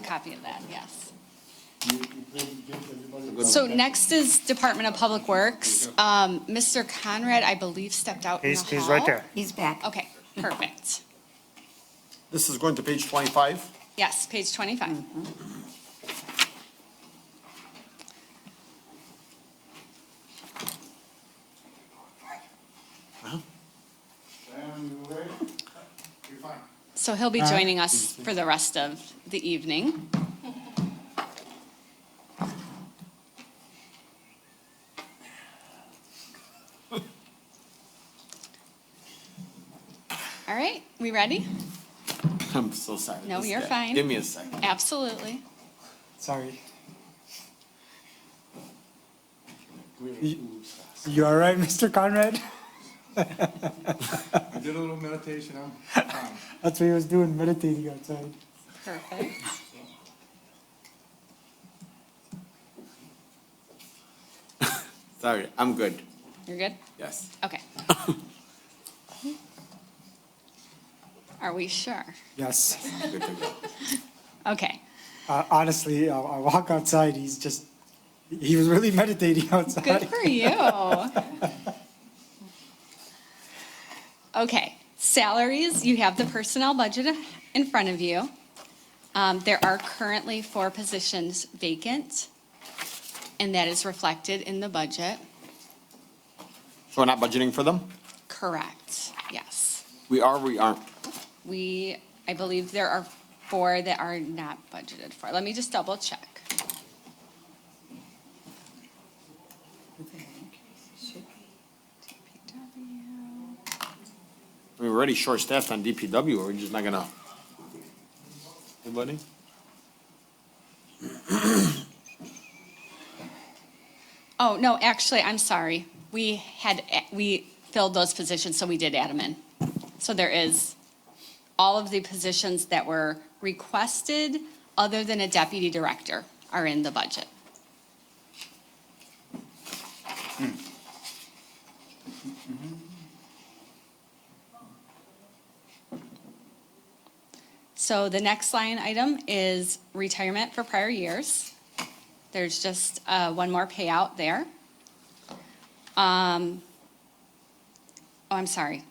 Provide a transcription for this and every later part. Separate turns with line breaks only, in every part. copy of that, yes.
You- you give- give everybody-
So next is Department of Public Works. Um, Mr. Conrad, I believe, stepped out in the
He's,
hall.
he's right there.
He's back.
Okay, perfect.
This is going to page 25.
Yes, page 25.
And wait, you're fine.
So he'll be joining us for the rest of the evening. All right, we ready?
I'm so sorry.
No,
This
you're
guy.
fine.
Give me a second.
Absolutely.
Sorry.
Come here, move fast.
You all right, Mr. Conrad?
I did a little meditation, I'm fine.
That's what he was doing, meditating outside.
Perfect.
Sorry, I'm good.
You're good?
Yes.
Okay. Are we sure?
Yes.
Good to go.
Okay,
Uh, honestly, I, I walk outside, he's just, he was really meditating outside.
good for you. Okay, salaries, you have the personnel budget in front of you. Um, There are currently four positions vacant, and that is reflected in the budget.
So we're not budgeting for them?
Correct, yes.
We are, we aren't.
We, I believe there are four that are not budgeted for. Let me just double check.
I mean, we're already short-staffed on DPW, or we're just not gonna. Anybody?
Oh, no, actually, I'm sorry. We had, we filled those positions, so we did add them in. So there is all of the positions that were requested, other than a deputy director, are in the budget. So the next line item is retirement for prior years. There's just uh, one more payout there. Um, Oh, I'm sorry,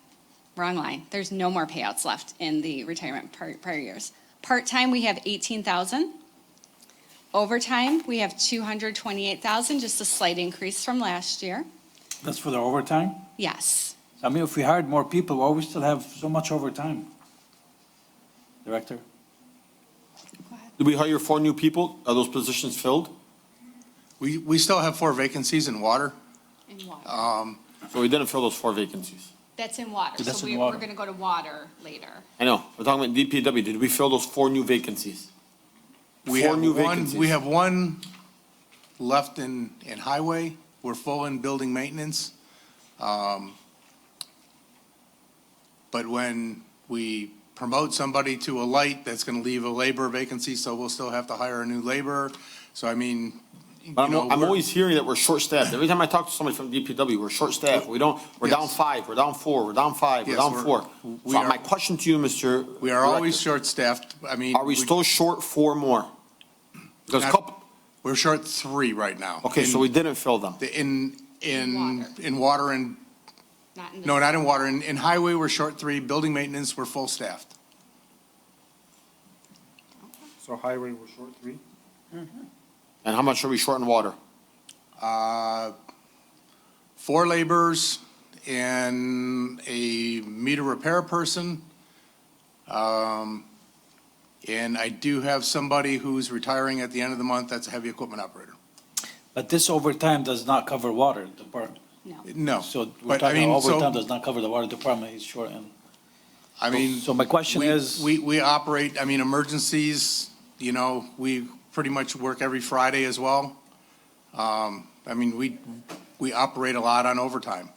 wrong line. There's no more payouts left in the retirement par- prior years. Part-time, we have 18,000. Overtime, we have 228,000, just a slight increase from last year.
That's for the overtime?
Yes,
I mean, if we hired more people, why we still have so much overtime? Director?
Did we hire four new people? Are those positions filled?
We, we still have four vacancies in water.
in
Uh,
water.
So we didn't fill those four vacancies.
That's in water,
That's
so
in
we- we're
water.
going to go to water later.
I know, we're talking about DPW. Did we fill those four new vacancies?
We
Four
have
new
one-
vacancies.
We have one left in, in highway. We're full in building maintenance. Um, But when we promote somebody to a light, that's going to leave a labor vacancy, so we'll still have to hire a new laborer. So I mean, you
But I'm,
know,
I'm
we're-
always hearing that we're short-staffed. Every time I talk to somebody from DPW, we're short-staffed. We don't, we're down
Yes.
five, we're down four, we're down five, we're
Yes,
down
we're-
four.
we
So
are-
my question to you, Mr.
we are always
Director,
short-staffed. I mean.
Are we still short four more? Because
Not-
couple,
We're short three right now.
okay, so we
In-
didn't fill them.
In, in,
Water.
in water and
Not in the.
No, not in water. In, in highway, we're short three. Building maintenance, we're full staffed.
So highway, we're short three?
And how much are we short in water?
Uh, Four laborers and a meter repair person. Um, And I do have somebody who's retiring at the end of the month. That's a heavy equipment operator.
But this overtime does not cover water department.
No.
No.
So we're
But I
talking
mean,
overtime
so,
does not cover the water department, it's short and.
I mean.
So my question
we-
is-
We, we operate, I mean, emergencies, you know, we pretty much work every Friday as well. Um, I mean, we, we operate a lot on overtime.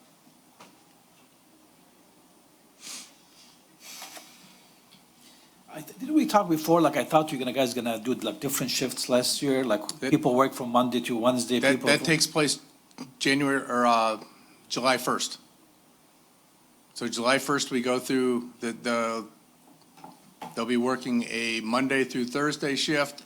I th- Didn't we talk before, like I thought you gonna, guys gonna do like different shifts last year, like
That-
people work from Monday to Wednesday,
That,
people.
that
from-
takes place January, or, uh, July first. So July first, we go through the, the, they'll be working a Monday through Thursday shift